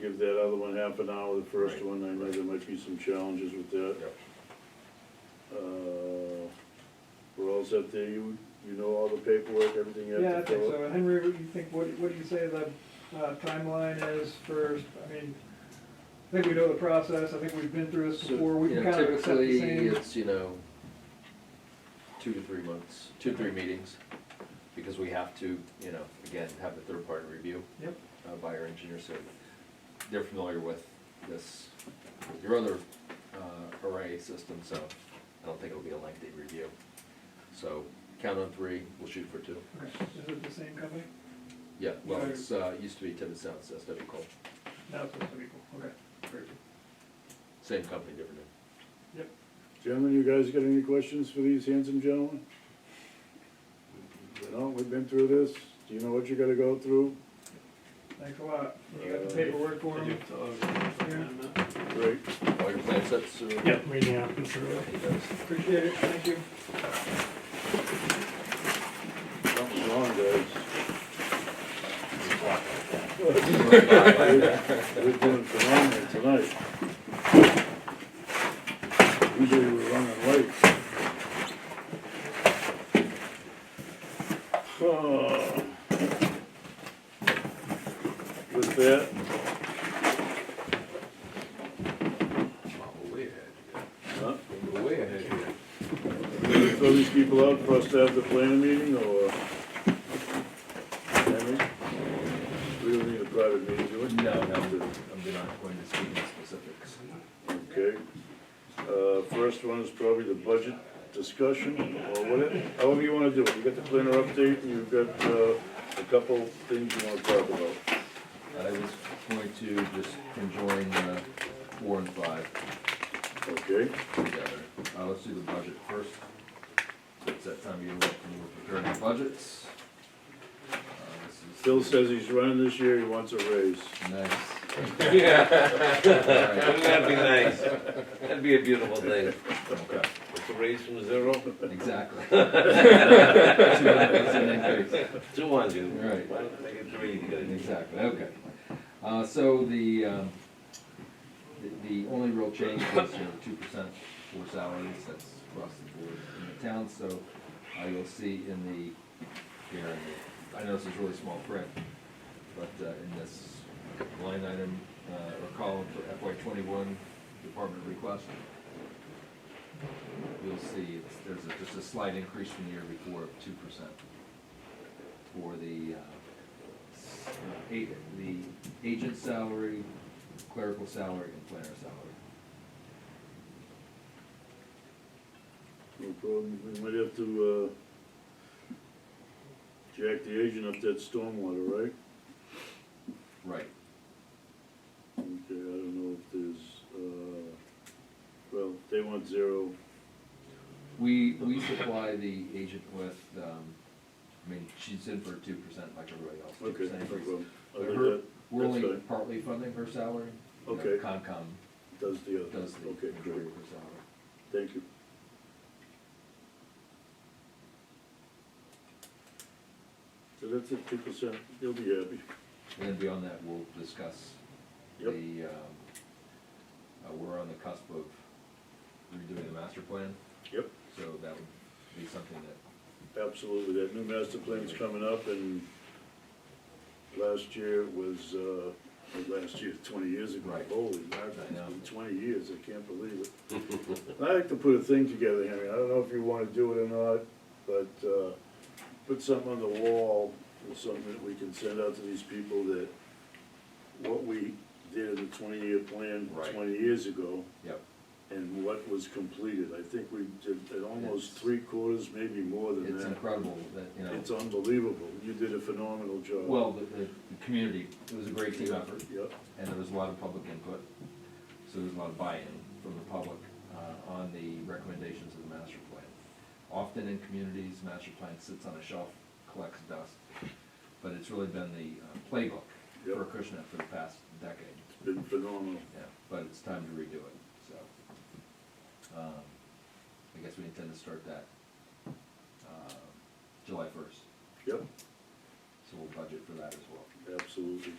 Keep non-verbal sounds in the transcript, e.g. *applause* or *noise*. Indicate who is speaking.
Speaker 1: give that other one half an hour, the first
Speaker 2: Right,
Speaker 1: one, I know
Speaker 2: right.
Speaker 1: there might be some challenges with that.
Speaker 2: Yep.
Speaker 1: Uh, We're all set there, you, you know all the paperwork, everything you
Speaker 3: Yeah, I
Speaker 1: have to
Speaker 3: think
Speaker 1: fill out?
Speaker 3: so. Henry, what do you think, what, what do you say the uh, timeline is for, I mean, I think we know the process, I think we've been through this
Speaker 1: So,
Speaker 3: before, we
Speaker 2: You
Speaker 3: can
Speaker 2: know,
Speaker 3: kind of accept the
Speaker 2: typically,
Speaker 3: same.
Speaker 2: it's, you know, two to three months, two to three meetings, because we have to, you know, again, have the third party review
Speaker 3: Yep,
Speaker 2: uh, by our engineer, so they're familiar with this, with your other uh, array system, so I don't think it'll be a lengthy review. So count on three, we'll shoot for two.
Speaker 3: okay, is it the same company?
Speaker 2: Yeah, well,
Speaker 3: Okay.
Speaker 2: it's, uh, used to be Tibbetts Sound, so that's W Cole,
Speaker 3: No, it's supposed to be cool, okay, great,
Speaker 2: same company, different name.
Speaker 3: yep.
Speaker 1: Gentlemen, you guys got any questions for these handsome gentlemen? You know, we've been through this, do you know what you gotta go through?
Speaker 3: Thanks a lot. You got the paperwork for him?
Speaker 1: Great.
Speaker 2: All your plan sets are?
Speaker 4: Yep, reading out, I'm sure.
Speaker 2: He does.
Speaker 3: Appreciate it, thank you.
Speaker 1: Something's wrong, guys. We're doing phenomenal tonight. Usually we're running late. Oh. With that,
Speaker 5: Way ahead,
Speaker 1: huh,
Speaker 5: yeah. way ahead here.
Speaker 1: we gonna throw uh, these people out for us to have the planning meeting or? Henry? We don't need a private meeting, do we?
Speaker 2: No, no, I'm not going to speak in specifics.
Speaker 1: Okay, uh, first one is probably the budget discussion, or whatever, however you wanna do it, you got the planner update, and you've got, uh, a couple things you wanna talk about.
Speaker 2: I was going to just conjoin uh, four and five
Speaker 1: Okay,
Speaker 2: together. Uh, Let's do the budget first. So It's that time of year when we're preparing budgets. Uh, this is-
Speaker 1: Phil says he's running this year, he wants a raise.
Speaker 2: Nice. *laughs*
Speaker 5: Wouldn't that be nice? *laughs* That'd be a beautiful thing.
Speaker 2: Okay,
Speaker 5: It's a raise from zero
Speaker 2: exactly. *laughs* Two increase and increase.
Speaker 5: to one, dude.
Speaker 2: Right.
Speaker 5: Why don't they get three?
Speaker 2: Exactly, okay. Uh, so the, um, the- the only real change is your two percent for salaries, that's across the board in the town, so uh, you'll see in the, here, in the- I know this is really small print, but uh, in this line item, uh, or column for FY twenty-one department request, you'll see it's, there's a, just a slight increase from the year before of two percent for the, uh, uh, eight, the agent salary, clerical salary, and planner salary.
Speaker 1: No problem, we might have to, uh, jack the agent up that stormwater, right?
Speaker 2: Right.
Speaker 1: Okay, I don't know if there's, uh, well, they want zero,
Speaker 2: We, we supply the agent with, um, I mean, she's in for two percent like everybody else, two
Speaker 1: okay,
Speaker 2: percent
Speaker 1: no
Speaker 2: increase.
Speaker 1: problem. I
Speaker 2: But
Speaker 1: think
Speaker 2: her-
Speaker 1: that
Speaker 2: We're
Speaker 1: that's
Speaker 2: only
Speaker 1: fine.
Speaker 2: partly funding her salary. You know,
Speaker 1: Okay.
Speaker 2: Concom
Speaker 1: does the other,
Speaker 2: does the
Speaker 1: okay, great.
Speaker 2: majority of her salary.
Speaker 1: Thank you. So that's it, two percent, you'll be happy.
Speaker 2: And then beyond that, we'll discuss
Speaker 1: Yep.
Speaker 2: the, um, uh, we're on the cusp of redoing the master plan,
Speaker 1: Yep.
Speaker 2: so that would be something that,
Speaker 1: Absolutely, that new master plan's coming up and last year was, uh, or last year, twenty years ago.
Speaker 2: Right.
Speaker 1: Holy mackerel,
Speaker 2: I know.
Speaker 1: it's been twenty years, I can't believe it. *laughs* I like to put a thing together, Henry, I don't know if you wanna do it or not, but, uh, put something on the wall, or something that we can send out to these people that what we did in the twenty-year plan
Speaker 2: Right.
Speaker 1: twenty years ago
Speaker 2: yep.
Speaker 1: and what was completed. I think we did at almost
Speaker 2: It's-
Speaker 1: three quarters, maybe more than
Speaker 2: It's
Speaker 1: that.
Speaker 2: incredible that, you know.
Speaker 1: It's unbelievable. You did a phenomenal job.
Speaker 2: Well, the, the, the community, it was a great team effort,
Speaker 1: Yep,
Speaker 2: and there was a lot of public input, so there was a lot of buy-in from the public, uh, on the recommendations of the master plan. Often in communities, master plan sits on a shelf, collects dust, but it's really been the uh, playbook for
Speaker 1: Yep.
Speaker 2: Acushnet for the past decade.
Speaker 1: it's been phenomenal.
Speaker 2: Yeah, but it's time to redo it, so. um, I guess we intend to start that, uh, July first,
Speaker 1: Yep,
Speaker 2: so we'll budget for that as well.
Speaker 1: absolutely.